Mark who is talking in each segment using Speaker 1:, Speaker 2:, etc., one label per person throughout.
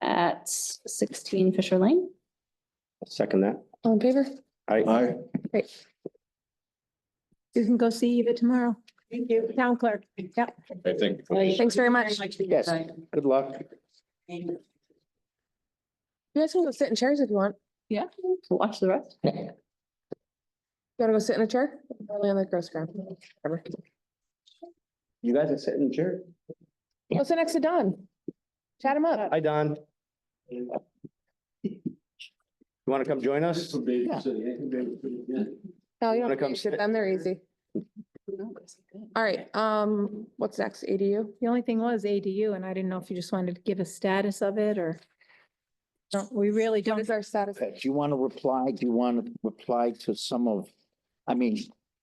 Speaker 1: at sixteen Fisher Lane.
Speaker 2: Second that.
Speaker 3: All in favor?
Speaker 4: Uh,
Speaker 2: I,
Speaker 5: Aye.
Speaker 3: You can go see Eva tomorrow.
Speaker 6: Thank you.
Speaker 3: Town clerk. Yep.
Speaker 5: I think.
Speaker 3: Thanks very much.
Speaker 2: Yes. good luck.
Speaker 3: You guys can go sit in chairs if you want.
Speaker 1: Yeah, watch the rest.
Speaker 3: You wanna go sit in a chair? Probably on the gross ground. Whatever.
Speaker 2: You guys are sitting chair.
Speaker 3: Go sit next to Don. Chat him up.
Speaker 2: Hi, Don. You want to come join us?
Speaker 3: No, you
Speaker 2: Wanna
Speaker 3: don't
Speaker 2: come
Speaker 3: come sit
Speaker 2: sit?
Speaker 3: them. They're easy. All right, um, what's next? ADU?
Speaker 7: The only thing was ADU, and I didn't know if you just wanted to give a status of it or don't, we really
Speaker 3: What
Speaker 7: don't.
Speaker 3: is our status?
Speaker 5: Uh, Do you want to reply? Do you want to reply to some of, I mean,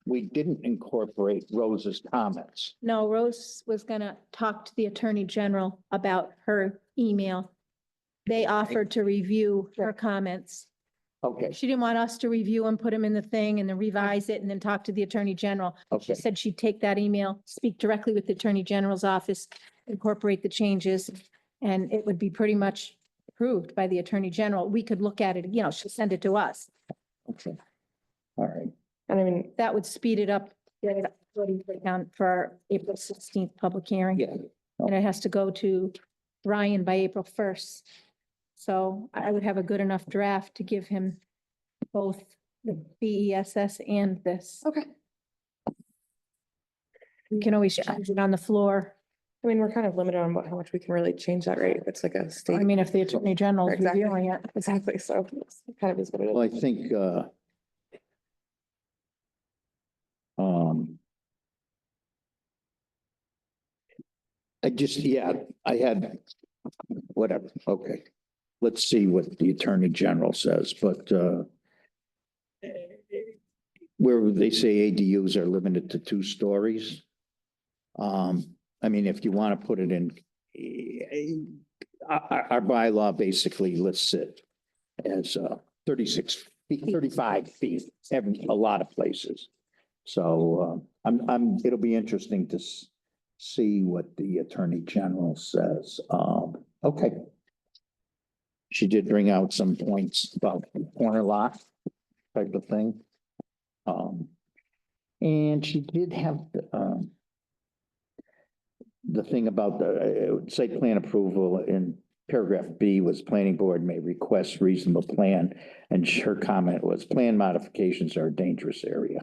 Speaker 5: we didn't incorporate Rose's comments.
Speaker 7: No, Rose was gonna talk to the Attorney General about her email. They offered to review her comments.
Speaker 5: Okay,
Speaker 7: She didn't want us to review and put them in the thing and then revise it and then talk to the Attorney General. She
Speaker 5: okay.
Speaker 7: said she'd take that email, speak directly with the Attorney General's office, incorporate the changes, and it would be pretty much approved by the Attorney General. We could look at it, you know, she'll send it to us.
Speaker 5: Okay. All right.
Speaker 3: And I mean,
Speaker 7: That would speed it up get it up ready for town- for our April sixteenth public hearing.
Speaker 5: Yeah.
Speaker 7: And it has to go to Ryan by April first. So I I would have a good enough draft to give him both the B E S S and this.
Speaker 3: okay.
Speaker 7: You can always change it on the floor.
Speaker 3: I mean, we're kind of limited on what, how much we can really change that rate. It's like a
Speaker 7: I
Speaker 3: state.
Speaker 7: mean, if the Attorney General is
Speaker 3: Exactly.
Speaker 7: reviewing it.
Speaker 3: Exactly. So it's kind of is what it is.
Speaker 5: Well, I think, uh, um, I just, yeah, I had, whatever, okay. Let's see what the Attorney General says, but, uh, where they say ADUs are limited to two stories. Um, I mean, if you want to put it in, eh, our, our- our bylaw basically lists it as, uh, thirty-six, feet, thirty-five feet, every, a lot of places. So, uh, I'm, I'm, it'll be interesting to s- see what the Attorney General says. Um, okay. She did bring out some points about corner lot type of thing. Um, and she did have, um, the thing about the uh, site plan approval in paragraph B was planning board may request reasonable plan. And her comment was plan modifications are a dangerous area.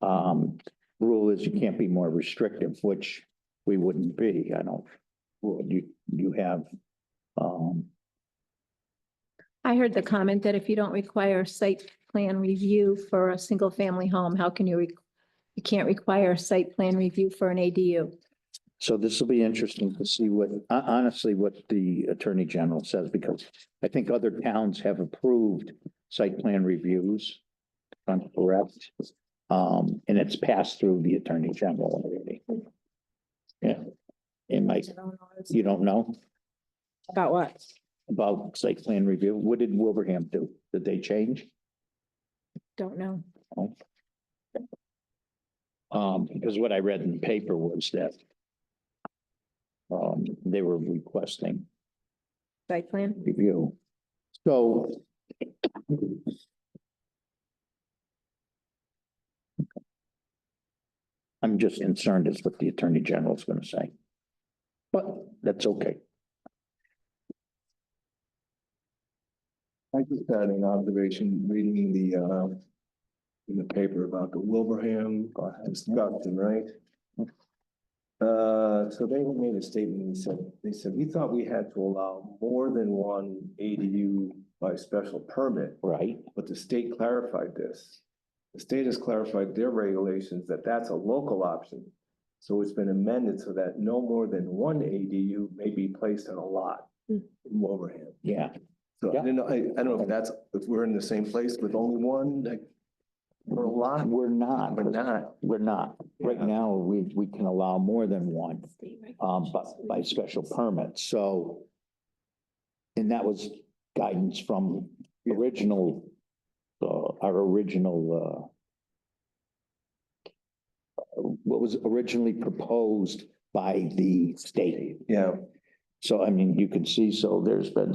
Speaker 5: Um, rule is you can't be more restrictive, which we wouldn't be, I don't, well, you, you have, um,
Speaker 7: I heard the comment that if you don't require site plan review for a single family home, how can you, re- you can't require a site plan review for an ADU?
Speaker 5: so this will be interesting to see what, hon- honestly, what the Attorney General says, because I think other towns have approved site plan reviews. if I'm correct, um, and it's passed through the Attorney General already. Yeah. It might, you don't know?
Speaker 7: About what?
Speaker 5: about site plan review. What did Wilbraham do? Did they change?
Speaker 7: Don't know.
Speaker 5: Um, because what I read in the paper was that um, they were requesting
Speaker 7: Site plan?
Speaker 5: review. So I'm just concerned is what the Attorney General is gonna say. But that's okay.
Speaker 4: I just had an observation reading the, uh, in the paper about the Wilbraham construction, right? Uh, so they made a statement, they said, they said, we thought we had to allow more than one ADU by special permit,
Speaker 5: Right.
Speaker 4: but the state clarified this. The state has clarified their regulations that that's a local option. So it's been amended so that no more than one ADU may be placed on a lot
Speaker 3: Hmm.
Speaker 4: in Wilbraham.
Speaker 5: Yeah.
Speaker 4: So I
Speaker 5: Yeah.
Speaker 4: don't know, I, I don't know if that's, if we're in the same place with only one, like, or a lot,
Speaker 5: We're not.
Speaker 4: we're not.
Speaker 5: We're not. Right
Speaker 4: Yeah.
Speaker 5: now, we, we can allow more than one, um, but by special permit, so. And that was guidance from original, uh, our original, uh, what was originally proposed by the state.
Speaker 4: Yeah.
Speaker 5: So I mean, you can see, so there's been